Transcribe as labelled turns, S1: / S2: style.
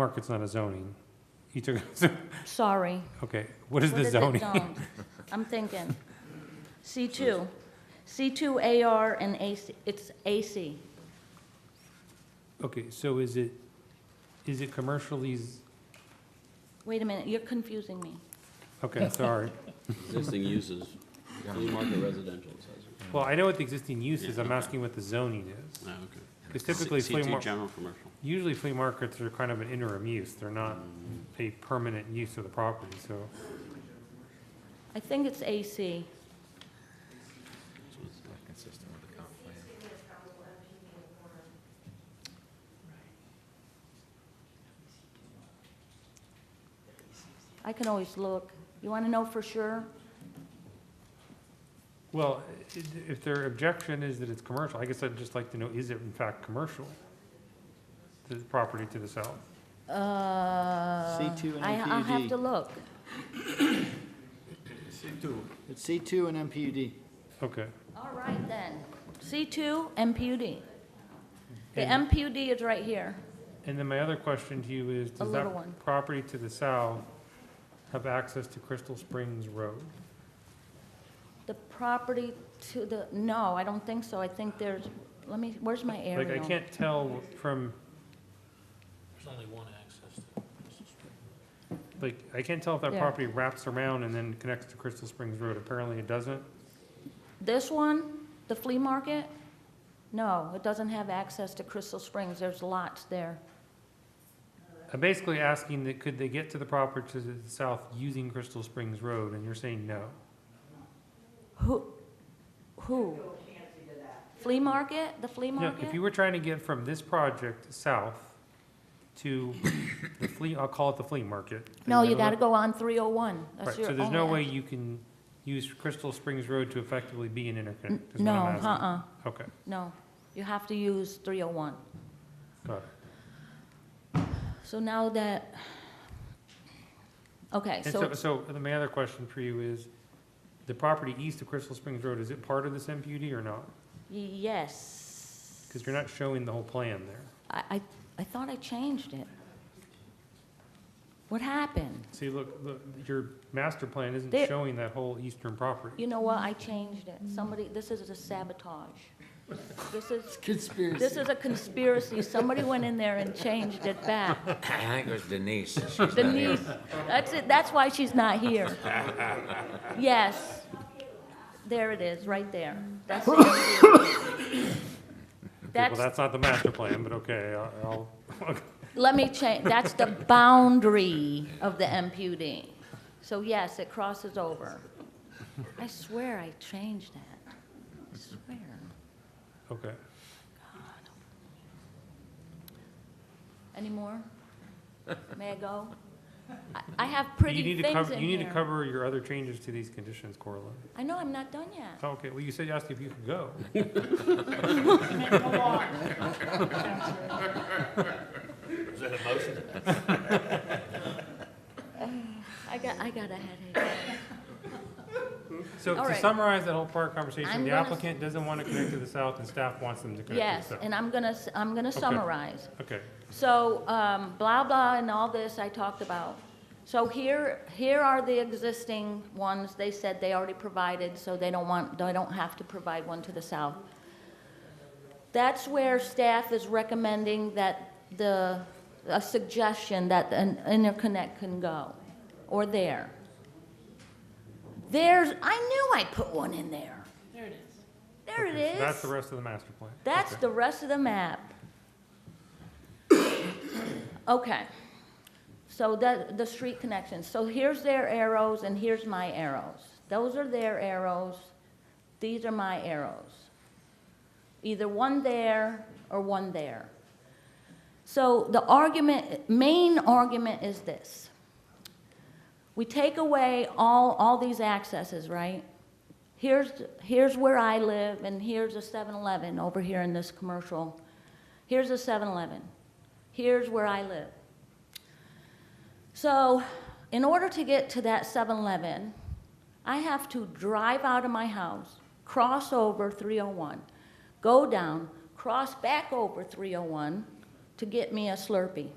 S1: Market's not a zoning. You took,
S2: Sorry.
S1: okay, what is
S2: What
S1: the
S2: is it
S1: zoning?
S2: zoned? I'm thinking. C2. C2 AR and AC, it's AC.
S1: Okay, so is it, is it commercially, z-
S2: Wait a minute, you're confusing me.
S1: okay, sorry.
S3: Existing uses, flea market residential, it says.
S1: Well, I know what the existing use is, I'm asking what the zoning is.
S3: Ah, okay.
S1: Because typically flea
S3: C2
S1: mar,
S3: general commercial.
S1: usually flea markets are kind of an interim use, they're not a permanent use of the property, so.
S2: I think it's AC.
S3: So it's like-
S4: Consistent with the comp plan.
S2: I can always look. You want to know for sure?
S1: Well, i- if their objection is that it's commercial, I guess I'd just like to know, is it in fact commercial? The property to the south?
S2: Uh.
S5: C2 and
S2: I- I'll have
S5: MPUD.
S2: to look.
S5: It's C2 and MPUD.
S1: Okay,
S2: All right then. C2, MPUD. The
S1: And-
S2: MPUD is right here.
S1: and then my other question to you is, does
S2: little one.
S1: that property to the south have access to Crystal Springs Road?
S2: The property to the, no, I don't think so. I think there's, let me, where's my aerial?
S1: Like, I can't tell from,
S6: There's only one access to
S1: like, I can't tell if that
S2: There.
S1: property wraps around and then connects to Crystal Springs Road. Apparently it doesn't.
S2: This one, the flea market, no, it doesn't have access to Crystal Springs. There's lots there.
S1: I'm basically asking that, could they get to the property to the south using Crystal Springs Road? And you're saying no.
S2: Who, who? Flea market, the flea
S1: No,
S2: market?
S1: if you were trying to get from this project south to the flea, I'll call it the flea market. then
S2: No, you
S1: have a
S2: gotta
S1: little-
S2: go on 301. That's
S1: Right,
S2: your
S1: so there's no way
S2: only-
S1: you can use Crystal Springs Road to effectively be an interconnect, is what
S2: No,
S1: I'm asking.
S2: uh-uh,
S1: Okay,
S2: no. You have to use 301.
S1: got it.
S2: So now that, okay,
S1: And
S2: so
S1: so,
S2: it's-
S1: so the- my other question for you is, the property east of Crystal Springs Road, is it part of this MPUD or not?
S2: yes.
S1: Because you're not showing the whole plan there.
S2: I, I, I thought I changed it. What happened?
S1: See, look, look, your master plan isn't
S2: There-
S1: showing that whole eastern property.
S2: You know what, I changed it. Somebody, this is a sabotage. This is,
S5: Conspiracy.
S2: this is a conspiracy. Somebody went in there and changed it back.
S4: I think it was Denise. She's not here.
S2: Denise, that's it, that's why she's not here. Yes. There it is, right there. That's the conspiracy.
S1: Okay, Well,
S2: That's,
S1: that's not the master plan, but okay, I'll, I'll,
S2: let me change, that's the boundary of the MPUD. So yes, it crosses over. I swear I changed that. I swear.
S1: okay.
S2: Any more? May I go? I- I have
S1: But You
S2: pretty
S1: need to
S2: things
S1: cover,
S2: in
S1: you need to
S2: here.
S1: cover your other changes to these conditions, Corlin.
S2: I know, I'm not done yet.
S1: Oh, Okay, well, you said, you asked if you could go.
S2: I got, I got a headache.
S1: So
S2: All
S1: to
S2: right.
S1: summarize that whole park
S2: I'm
S1: conversation, the
S2: gonna-
S1: applicant doesn't want to connect to the south and staff wants them to connect to
S2: Yes,
S1: the south.
S2: and I'm gonna, s- I'm gonna summarize.
S1: Okay,
S2: So, um, blah, blah, and all this I talked about. So here, here are the existing ones they said they already provided, so they don't want, they don't have to provide one to the south. That's where staff is recommending that the, a suggestion that an interconnect can go, or there. There's, I knew I put one in there. There it is. There it
S1: so
S2: is.
S1: that's the rest of the master plan.
S2: That's
S1: Okay.
S2: the rest of the map. Okay. So the, the street connections. So here's their arrows and here's my arrows. Those are their arrows. These are my arrows. Either one there or one there. So the argument, main argument is this. We take away all, all these accesses, right? here's, here's where I live, and here's a 7-Eleven over here in this commercial. Here's a 7-Eleven. Here's where I live. So, in order to get to that 7-Eleven, I have to drive out of my house, cross over 301, go down, cross back over 301 to oh get me a Slurpee.